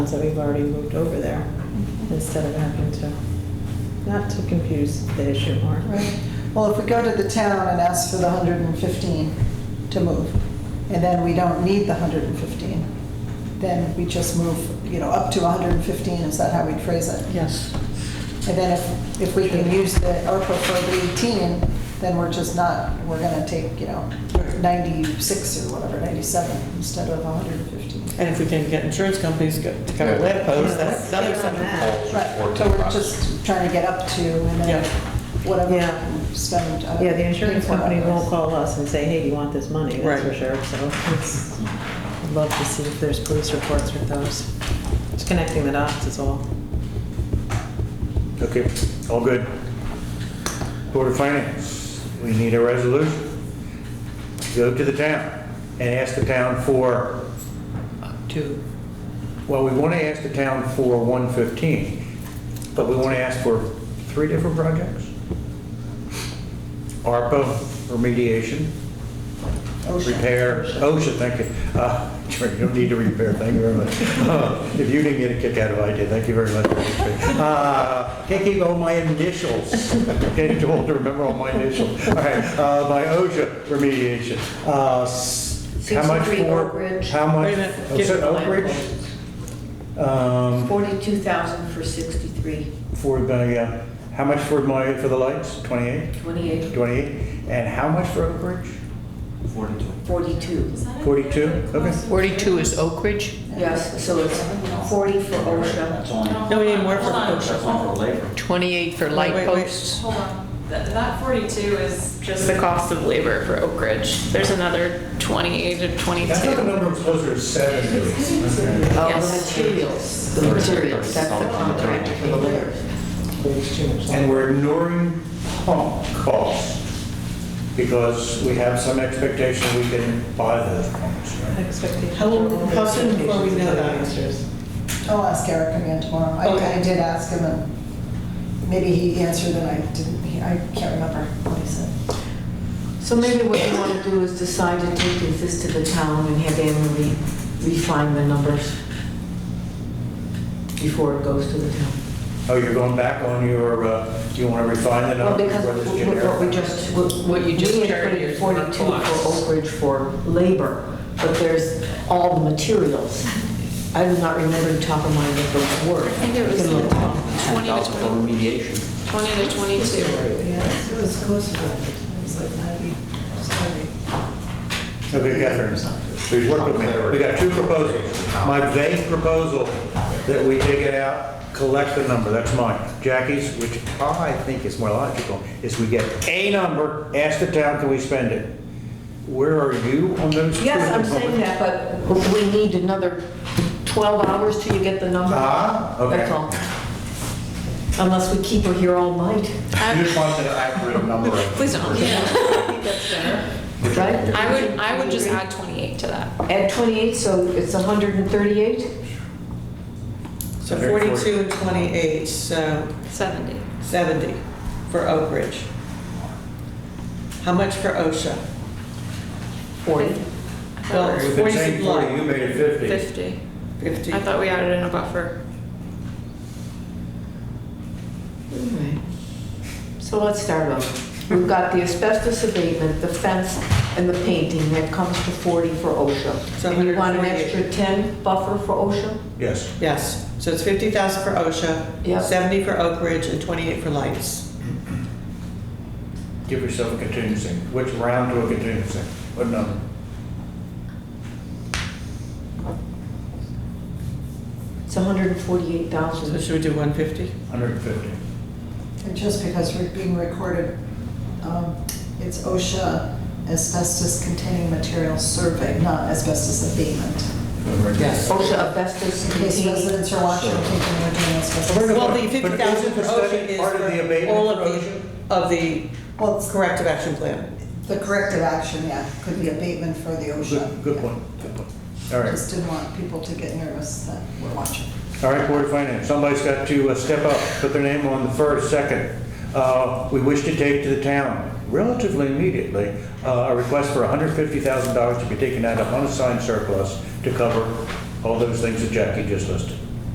that we've already moved over there instead of having to, not to confuse the issue more. Right. Well, if we go to the town and ask for the 115 to move, and then we don't need the 115, then we just move, you know, up to 115, is that how we phrase it? Yes. And then if, if we can use the ARPA for the 18, then we're just not, we're gonna take, you know, 96 or whatever, 97 instead of 115. And if we can get insurance companies to to cover lead posts, that's Yeah, another let's get on something. that. Right, so we're just trying to get up to, and Yeah. then whatever Yeah. we spend. uh, Yeah, the insurance for company others. won't call us and say, hey, you want this money, that's for Right. sure, so it's, I'd love to see if there's police reports with those. Just connecting the dots is all. Okay, all good. Board of Finance, we need a resolution. Go to the town and ask the town for, Two. well, we want to ask the town for 115, but we want to ask for three different projects? ARPA remediation, OSHA. repair, OSHA, thank you. Uh, sure, You don't need to repair, thank you very much. Uh, If you didn't get a kick out of it, I did, thank you very much. Uh, Taking all my initials, getting too old to remember all my initials. All right, uh, my OSHA remediation. Uh, s- How much 63 for? Oak Ridge. How much? Wait a minute, Oh, so get- Oak Ridge? Um, 42,000 for 63, For the, uh, how much for my, for the lights? 28? 28, 28? And how much for Oak Ridge? 42. 42? Okay. 42 is Oak Ridge, Yes, so it's 40 for OSHA. That's only, No, we need more for Hold on, OSHA. that's only for labor. 28 for Wait, light wait, wait. posts. Hold on, Th- that 42 is just the cost of labor for Oak Ridge. There's another 28 or 22. That's not the number closer to seven. Oh. Yes. materials. The materials. That's the contract for the labor. And we're ignoring pump costs because we have some expectation we can buy those pumps. right? Expectations. How long- are how soon before we know that? Expectations. I'll ask Eric again tomorrow. I, I Okay. did ask him, and maybe he answered and I didn't, he- I can't remember what he said. So maybe what you want to do is decide to take this to the town and have them re- refine the numbers before it goes to the town. Oh, you're going back on your, uh, you want to refine the Well, number because for this what what we generic? just, what What you just we had carried put in is 42 for surplus. Oak Ridge for labor, but there's all the materials. I do not remember the top of my head the word. I think it was like 20 to 10,000 for remediation. 20 to 22. Yeah, it was close to that. It was like 90, Okay, Catherine, please work with me. We got two proposals. My vague proposal that we dig it out, collect the number, that's mine. Jackie's, which I think is more logical, is we get a number, ask the town, can we spend it? Where are you on those? two Yes, I'm proposals? saying that, but we need another 12 hours till you get the number. Ah, okay. That's all. Unless we keep her here all night, You just want an accurate number. Please don't. right? I would, I would just add 28 to that. Add 28, so it's 138? So 42 and 28, so 70. 70 for Oak Ridge. How much for OSHA? 40. I thought Well, we We've it's been 40 saying 40, you supply, made it 50. were 50. 50. I thought we added in a buffer. Alright. So let's start off. We've got the asbestos abatement, the fence, and the painting, that comes to 40 for OSHA. So And you want an 148. extra 10 buffer for OSHA? Yes. Yes, so it's 50,000 for OSHA, Yep. 70 for Oak Ridge, and 28 for lights. Give yourself a contingency. Which round to a contingency? What number? It's 148,000. So should we do 150? 150. And just because we're being recorded, um, it's OSHA asbestos containing materials survey, not asbestos abatement. Yes. OSHA asbestos In case containing, residents are watching, thinking we're doing asbestos. Well, the But 50,000 isn't for the OSHA study is part of the for abatement all for of the, of the Well, it's corrective action plan. the corrective action, yeah, could be abatement for the Good OSHA. good yeah. point, good point. All right. Just didn't want people to get nervous that we're watching. All right, Board of Finance, somebody's got to uh, step up, put their name on the first, second. Uh, We wish to take to the town relatively immediately uh, a request for $150,000 to be taken out of unassigned surplus to cover all those things that Jackie just listed.